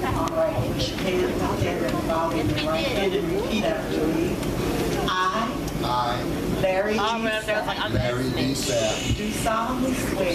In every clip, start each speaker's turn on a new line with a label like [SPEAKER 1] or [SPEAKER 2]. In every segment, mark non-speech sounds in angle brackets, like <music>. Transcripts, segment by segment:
[SPEAKER 1] pledge.
[SPEAKER 2] Hands up, everybody, in the right hand and repeat after me. I,
[SPEAKER 1] I,
[SPEAKER 2] Larry
[SPEAKER 3] All
[SPEAKER 2] G.
[SPEAKER 3] right, there was like, I'm
[SPEAKER 1] Larry D.
[SPEAKER 3] listening.
[SPEAKER 1] Sapp,
[SPEAKER 2] do solemnly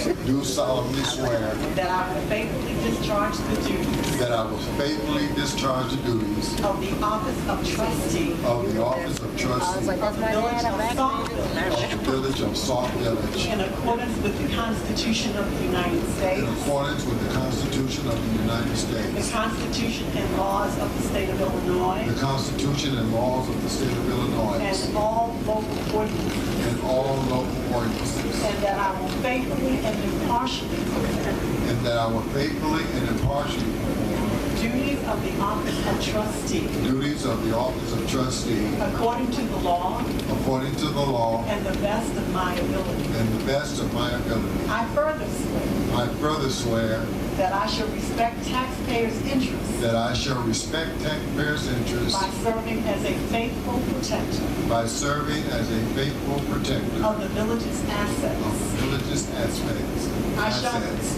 [SPEAKER 2] swear
[SPEAKER 1] do solemnly swear
[SPEAKER 2] that I will faithfully discharge the duties
[SPEAKER 1] that I will faithfully discharge the duties
[SPEAKER 2] of the office of trustee
[SPEAKER 1] of the office of trustee
[SPEAKER 3] That's my
[SPEAKER 2] Village
[SPEAKER 3] dad, I'm
[SPEAKER 2] of
[SPEAKER 3] back.
[SPEAKER 2] Saltville
[SPEAKER 1] of the village of Sauk Village
[SPEAKER 2] in accordance with the Constitution of the United
[SPEAKER 1] in
[SPEAKER 2] States,
[SPEAKER 1] accordance with the Constitution of the United
[SPEAKER 2] the
[SPEAKER 1] States,
[SPEAKER 2] Constitution and laws of the state of
[SPEAKER 1] the
[SPEAKER 2] Illinois,
[SPEAKER 1] Constitution and laws of the state of Illinois,
[SPEAKER 2] and all local ordinances,
[SPEAKER 1] and all local ordinances,
[SPEAKER 2] and that I will faithfully and impartially perform
[SPEAKER 1] and that I will faithfully and impartially perform
[SPEAKER 2] the duties of the office of trustee
[SPEAKER 1] the duties of the office of trustee
[SPEAKER 2] according to the law
[SPEAKER 1] according to the law
[SPEAKER 2] and the best of my ability.
[SPEAKER 1] and the best of my ability.
[SPEAKER 2] I further swear
[SPEAKER 1] I further swear
[SPEAKER 2] that I shall respect taxpayers' interests
[SPEAKER 1] that I shall respect taxpayers' interests
[SPEAKER 2] by serving as a faithful protector
[SPEAKER 1] by serving as a faithful protector
[SPEAKER 2] of the village's
[SPEAKER 1] of
[SPEAKER 2] assets.
[SPEAKER 1] religious aspects.
[SPEAKER 2] I shall-
[SPEAKER 1] Assets.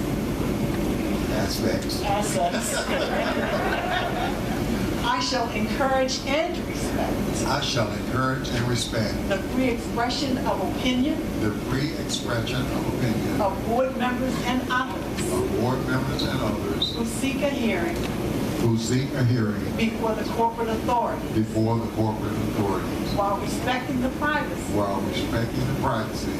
[SPEAKER 1] Aspects.
[SPEAKER 2] Assets. <laughs> I shall encourage and respect
[SPEAKER 1] I shall encourage and respect
[SPEAKER 2] the free expression of opinion
[SPEAKER 1] the free expression of opinion of
[SPEAKER 2] of board members and others
[SPEAKER 1] board members and others
[SPEAKER 2] who seek a hearing
[SPEAKER 1] who seek a hearing
[SPEAKER 2] before the corporate authority
[SPEAKER 1] before the corporate authorities
[SPEAKER 2] while respecting the privacy
[SPEAKER 1] while respecting the privacy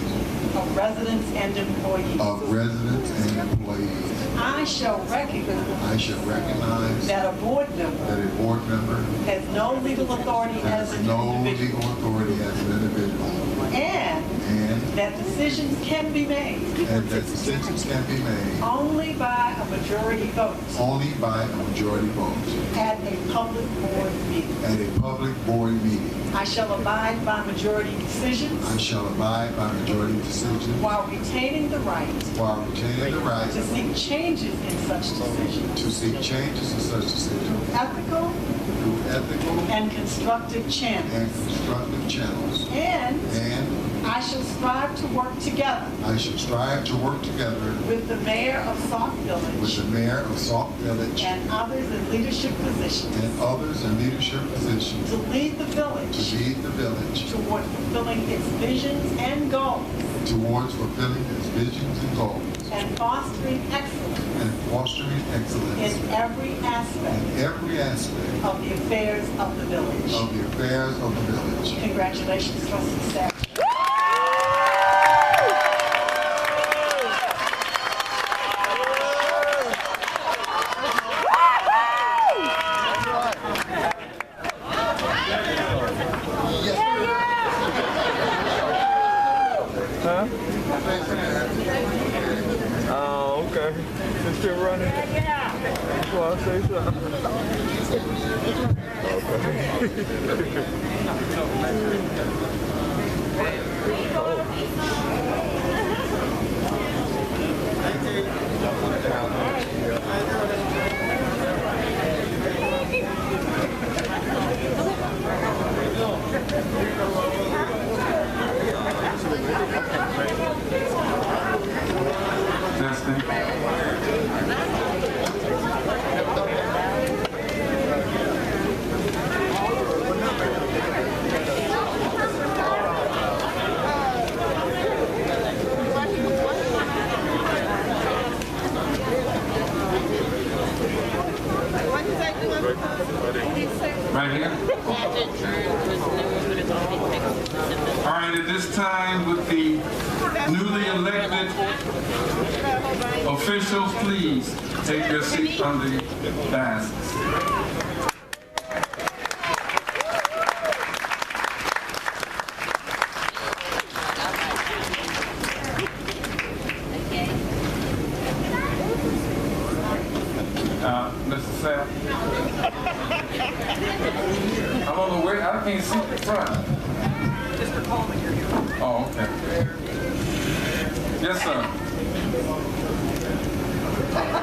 [SPEAKER 2] of residents and
[SPEAKER 1] of
[SPEAKER 2] employees.
[SPEAKER 1] residents and employees.
[SPEAKER 2] I shall recognize
[SPEAKER 1] I shall recognize that
[SPEAKER 2] that a board member
[SPEAKER 1] a board member
[SPEAKER 2] has no legal authority as
[SPEAKER 1] has
[SPEAKER 2] an
[SPEAKER 1] no
[SPEAKER 2] individual
[SPEAKER 1] legal authority as an individual
[SPEAKER 2] and
[SPEAKER 1] and
[SPEAKER 2] that decisions can be made
[SPEAKER 1] and that decisions can be made
[SPEAKER 2] only by a majority vote
[SPEAKER 1] only by a majority vote
[SPEAKER 2] at a public board meeting.
[SPEAKER 1] at a public board meeting.
[SPEAKER 2] I shall abide by majority
[SPEAKER 1] I
[SPEAKER 2] decisions
[SPEAKER 1] shall abide by majority decisions
[SPEAKER 2] while retaining the right
[SPEAKER 1] while retaining the
[SPEAKER 2] to
[SPEAKER 1] right
[SPEAKER 2] seek changes in such decisions,
[SPEAKER 1] to seek changes in such decisions
[SPEAKER 2] ethical
[SPEAKER 1] through ethical
[SPEAKER 2] and constructive
[SPEAKER 1] and
[SPEAKER 2] channels.
[SPEAKER 1] constructive channels.
[SPEAKER 2] And
[SPEAKER 1] And
[SPEAKER 2] I shall strive to work together
[SPEAKER 1] I shall strive to work together
[SPEAKER 2] with the mayor of Sauk
[SPEAKER 1] with the
[SPEAKER 2] Village
[SPEAKER 1] mayor of Sauk Village
[SPEAKER 2] and others in leadership positions
[SPEAKER 1] and uh, others in leadership positions
[SPEAKER 2] to lead the
[SPEAKER 1] to
[SPEAKER 2] village
[SPEAKER 1] lead the village
[SPEAKER 2] toward fulfilling its visions and goals
[SPEAKER 1] towards fulfilling its visions and goals
[SPEAKER 2] and fostering excellence
[SPEAKER 1] and fostering excellence
[SPEAKER 2] in every aspect
[SPEAKER 1] in every aspect
[SPEAKER 2] of the affairs of the village.
[SPEAKER 1] of the affairs of the village.
[SPEAKER 2] Congratulations, trustee Sapp.
[SPEAKER 4] Oh, okay. It's still running. That's why I say something.
[SPEAKER 5] Testing. Right here. All right, at this time, with the newly elected officials, please take your seats on the dais. Uh, Mr. Sapp? I'm on the way, I can't see the front. Mr. Coleman, you're here. Oh, okay. Yes, sir.